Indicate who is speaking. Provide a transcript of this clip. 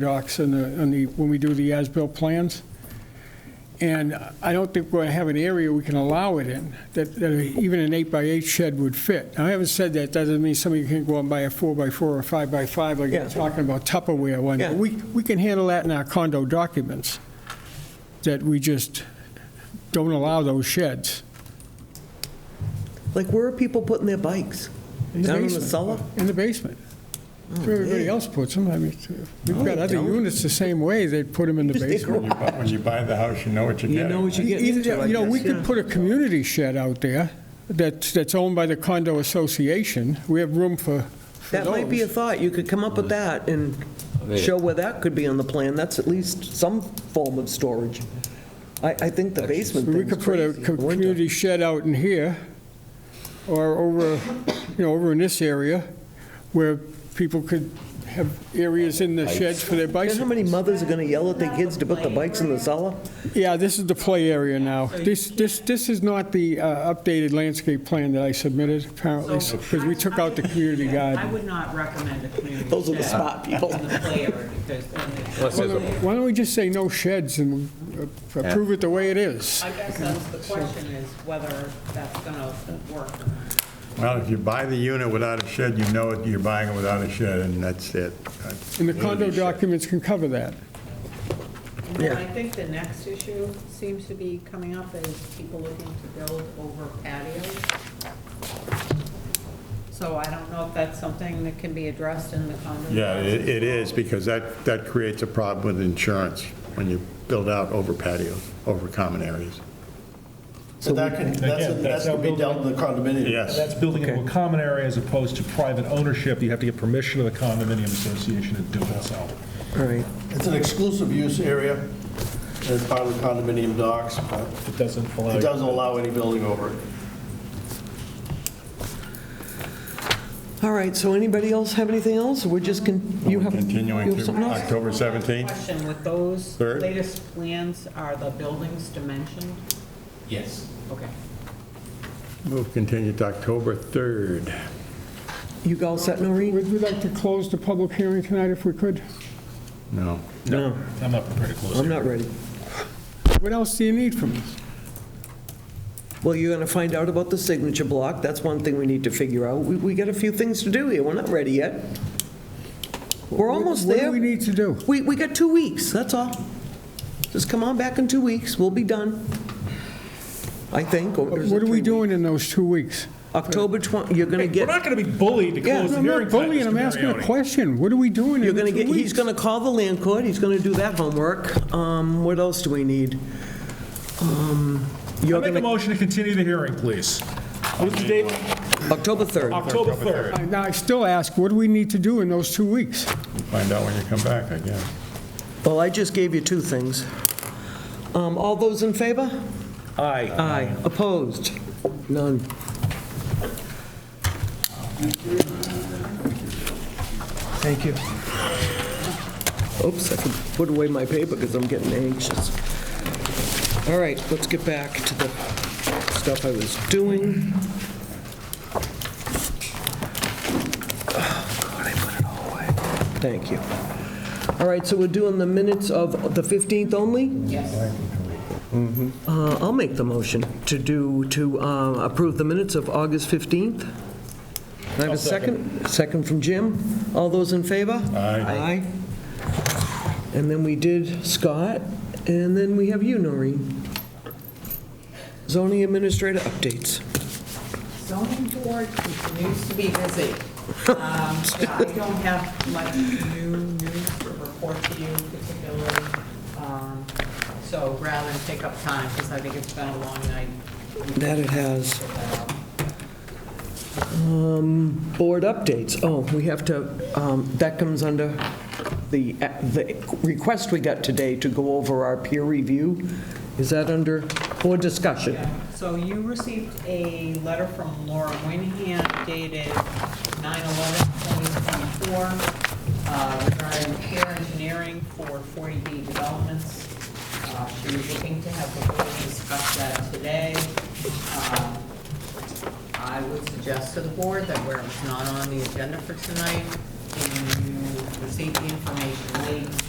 Speaker 1: docs and the, and the, when we do the as-built plans. And I don't think we have an area we can allow it in, that, that even an eight by eight shed would fit. Now, I haven't said that, that doesn't mean somebody can't go out and buy a four by four or five by five, like
Speaker 2: Yeah.
Speaker 1: you're talking about Tupperware one.
Speaker 2: Yeah.
Speaker 1: We, we can handle that in our condo documents, that we just don't allow those sheds.
Speaker 2: Like, where are people putting their bikes?
Speaker 1: In the
Speaker 2: Down in the
Speaker 1: basement.
Speaker 2: cellar? Oh,
Speaker 1: In the basement. That's Where everybody
Speaker 2: yeah.
Speaker 1: else puts them, I mean, it's- we've got
Speaker 2: they
Speaker 1: other
Speaker 2: don't.
Speaker 1: units the same way, they put them in the
Speaker 2: Just
Speaker 1: basement.
Speaker 3: When you bu- when you buy the house, you know what you're
Speaker 2: You
Speaker 3: getting.
Speaker 2: know what you're getting
Speaker 1: Either,
Speaker 2: into,
Speaker 1: that-
Speaker 2: I
Speaker 1: you know, we
Speaker 2: guess,
Speaker 1: could
Speaker 2: yeah.
Speaker 1: put a community shed out there that's, that's owned by the condo association. We have room for, for
Speaker 2: That might be a
Speaker 1: those.
Speaker 2: thought, you could come up with that and show where that could be on the plan, that's at least some form of storage. I, I think the basement
Speaker 1: We
Speaker 2: thing's
Speaker 1: could put a
Speaker 2: crazy.
Speaker 1: co- community shed out in here or over, you know, over in this area where people could have areas in the sheds for their
Speaker 2: You know how
Speaker 1: bicycles.
Speaker 2: many mothers are gonna yell at their kids to put the bikes in the cellar?
Speaker 1: Yeah, this is the play area now. This, this, this is not the uh, updated landscape plan that I submitted apparently,
Speaker 4: So-
Speaker 1: because we took out the community
Speaker 4: I
Speaker 1: guide.
Speaker 4: would not recommend a community
Speaker 2: Those are the
Speaker 4: shed
Speaker 2: spot people.
Speaker 4: In the play area, because then it's-
Speaker 1: Why don't we just say no sheds and uh, approve it the way it is?
Speaker 4: I guess that's the question is whether that's going to work. or not.
Speaker 3: Well, if you buy the unit without a shed, you know it, you're buying it without a shed, and that's it.
Speaker 1: And the condo documents can cover that.
Speaker 4: And then I think the next issue seems to be coming up is people looking to build over patios. So I don't know if that's something that can be addressed in the condo.
Speaker 3: Yeah, it it is, because that, that creates a problem with insurance when you build out over patios, over common areas.
Speaker 5: So that can, that's,
Speaker 6: Again,
Speaker 5: that's
Speaker 6: that's
Speaker 5: to be
Speaker 6: building-
Speaker 5: dealt with the condominium.
Speaker 3: Yes.
Speaker 6: That's building into a common area as opposed to private ownership. You have to get permission of the condominium association to do it, so.
Speaker 2: All right,
Speaker 5: It's an exclusive use area, as part of the condominium docs, but
Speaker 6: It doesn't allow.
Speaker 5: it doesn't allow any building over it.
Speaker 2: all right, so anybody else have anything else? We're just, con- you have, you
Speaker 3: Continuing
Speaker 2: have
Speaker 3: to
Speaker 2: something else?
Speaker 3: October 17th?
Speaker 4: Question with those
Speaker 3: Third.
Speaker 4: latest plans, are the buildings dimensioned?
Speaker 7: Yes.
Speaker 4: Okay.
Speaker 3: We'll continue to October 3rd.
Speaker 2: You all set, Noreen?
Speaker 1: Would we like to close the public hearing tonight if we could?
Speaker 3: No.
Speaker 2: No.
Speaker 6: I'm not prepared to close
Speaker 2: I'm
Speaker 6: it.
Speaker 2: not ready.
Speaker 1: What else do you need from us?
Speaker 2: Well, you're gonna find out about the signature block, that's one thing we need to figure out. We, we got a few things to do here, we're not ready yet. We're almost
Speaker 1: What
Speaker 2: there.
Speaker 1: do we need to do?
Speaker 2: We, we got two weeks, that's all. Just come on back in two weeks, we'll be done, I think. or is it
Speaker 1: What are
Speaker 2: three
Speaker 1: we
Speaker 2: weeks?
Speaker 1: doing in those two weeks?
Speaker 2: October 20, you're going to
Speaker 6: We're
Speaker 2: get,
Speaker 6: not going to be bullied to
Speaker 2: Yeah,
Speaker 6: close the
Speaker 1: I'm
Speaker 6: hearing
Speaker 1: not
Speaker 6: tonight,
Speaker 1: bullying,
Speaker 6: Mr.
Speaker 1: I'm asking a
Speaker 6: Marioni.
Speaker 1: question. What are we doing
Speaker 2: you're
Speaker 1: in
Speaker 2: going to
Speaker 1: the
Speaker 2: get,
Speaker 1: two
Speaker 2: he's
Speaker 1: weeks?
Speaker 2: going to call the land court, he's going to do that homework. Um, What else do we need? Um, You're
Speaker 6: I'll Make a
Speaker 2: going to,
Speaker 6: motion to continue the hearing, please. What's the date?
Speaker 2: October 3rd.
Speaker 6: October 3rd.
Speaker 1: Now, I still ask, what do we need to do in those two weeks?
Speaker 3: Find out when you come back, I guess.
Speaker 2: Well, I just gave you two things. Um, All those in favor?
Speaker 6: Aye.
Speaker 2: Aye. Opposed? None. Thank you. Oops, I can put away my paper because I'm getting anxious. All right, let's get back to the stuff I was doing. Oh, God, I put it all away. Thank you. All right, so we're doing the minutes of the 15th only? Uh, I'll make the motion to do, to uh, approve the minutes of August 15th. Can I have a second? Second from Jim. All those in favor? Aye. Aye. And then we did Scott, and then we have you, Noreen. Zoning Administrator updates.
Speaker 4: zoning board continues to be busy. Um, I don't have much new news to report to you particularly, um, so rather than take up time, because I think it's been a long night.
Speaker 2: That it has. Um, Board updates. Oh, we have to, um, that comes under the, the request we got today to go over our peer review. Is that under, board discussion?
Speaker 4: Yeah. So you received a letter from Laura Winahan dated 9/11/2024 uh, regarding peer engineering for 40B developments. Uh, She was looking to have the board discuss that today. Um, I would suggest to the board that where it's not on the agenda for tonight, you receive the information late